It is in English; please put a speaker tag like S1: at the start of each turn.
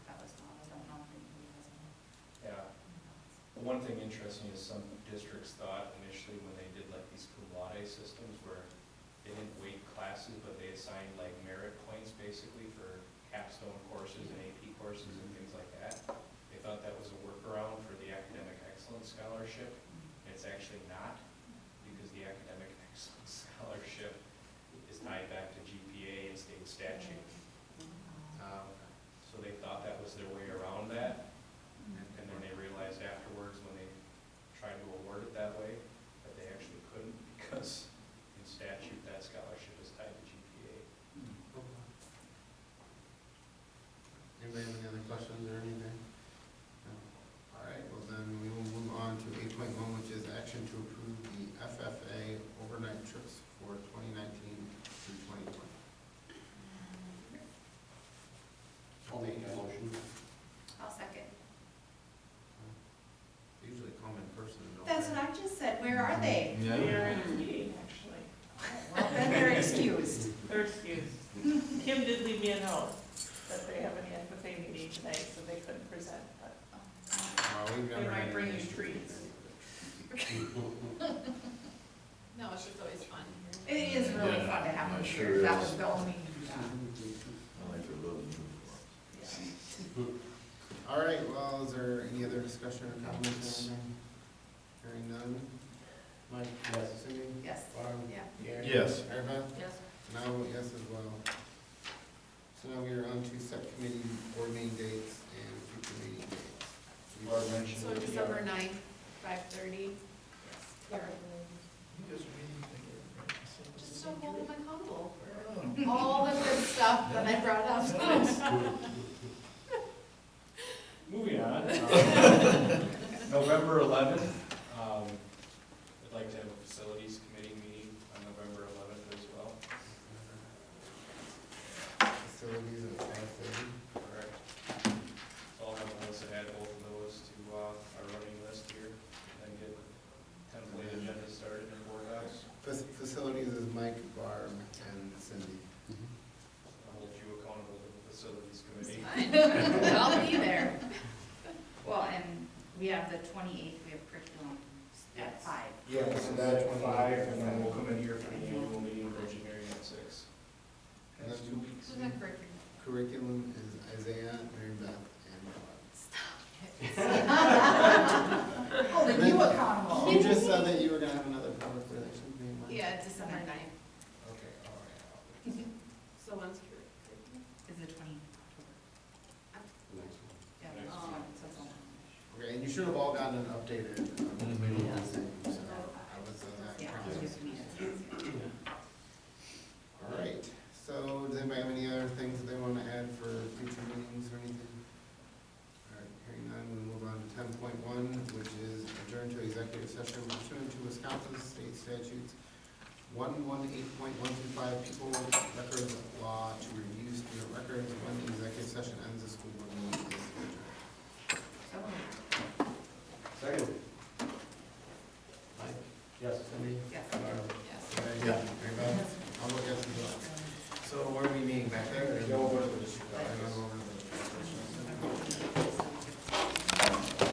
S1: One thing interesting is some districts thought initially when they did like these cum laude systems where they didn't weight classes, but they assigned like merit points basically for capstone courses and AP courses and things like that. They thought that was a workaround for the academic excellence scholarship. It's actually not, because the academic excellence scholarship is tied back to GPA and state statute.
S2: Mm-hmm.
S1: Um, So they thought that was their way around that. And then they realized afterwards, when they tried to award it that way, that they actually couldn't because in statute, that scholarship is tied to GPA.
S3: Anybody have any other questions or anything? No. All right, well then we will move on to eight point one, which is action to approve the FFA overnight trips for twenty nineteen through twenty twenty.
S2: I'll make that motion.
S4: I'll second.
S3: They Usually come in person, don't they?
S4: That's what I just said, where are they?
S5: They
S3: Yeah.
S5: are in a meeting, actually.
S4: Then they're excused.
S5: They're excused. Kim did leave me a note that they have an FFA meeting tonight, so they couldn't present, but
S3: Well, we've never
S5: They might
S3: had any
S5: bring you
S3: issues.
S5: treats.
S6: No, it's just always fun.
S4: It is really
S2: Yeah,
S4: fun to have them
S2: it
S4: here,
S2: sure
S4: that
S2: is.
S4: was the only,
S2: I like the little uniforms.
S5: yeah.
S3: All right, well, is there any other discussion or comments? or anything? Hearing none? Mike? Yes. Cindy?
S4: yes,
S3: Bob?
S4: yeah.
S3: Gary?
S2: Yes.
S3: Arva?
S6: Yes.
S3: And I vote yes as well. So now we are on to subcommittee board meeting dates and future meeting dates.
S1: Laura mentioned
S6: So
S1: the
S6: December ninth, five thirty. Just don't hold them accountable for all the good stuff that I brought up.
S1: Moving on. um, November eleventh, um, I'd like to have a facilities committee meeting on November eleventh as well.
S3: Uh-huh. Facilities at five thirty.
S1: Correct. So I'll have a list ahead, both of those to, uh, our running list here, and then get template agenda started in board docs.
S3: Fac- Facilities is Mike, Barb, and Cindy.
S1: I'll hold you accountable to the facilities committee.
S4: I'll be there. Well, and we have the twenty-eighth, we have curriculum at five.
S3: Yeah, so that's
S1: At Five, and then we'll come in here for the annual meeting of engineering at six.
S3: And that's
S1: That's two weeks.
S6: Who's on curriculum?
S3: Curriculum is Isaiah, Mary Beth, and
S4: Holding you
S3: Bob.
S4: accountable.
S3: You just said that you were gonna have another public relations meeting. Mike?
S6: Yeah, December ninth.
S3: Okay, all right.
S6: So one's curriculum.
S4: Is the twenty,
S3: Next one.
S4: yeah,
S1: Next.
S4: oh, so it's on.
S3: Okay, and you should have all gotten an updated, um, meeting listing, so I was on that
S4: yeah,
S3: process.
S4: just me, it's-
S3: All right, so does anybody have any other things that they want to add for future meetings or anything? All right, hearing none, we move on to ten point one, which is adjourn to executive session pursuant to Wisconsin State Statutes one one eight point one two five, people records law to review student records when the executive session ends, the school board meeting is adjourned.
S4: so moved.
S3: Second. Mike? Yes. Cindy?
S4: Yes.
S3: Barb?
S6: Yes.
S3: Yeah. Mary Beth? I'll look at some. So where are we meeting, back there?
S4: Um,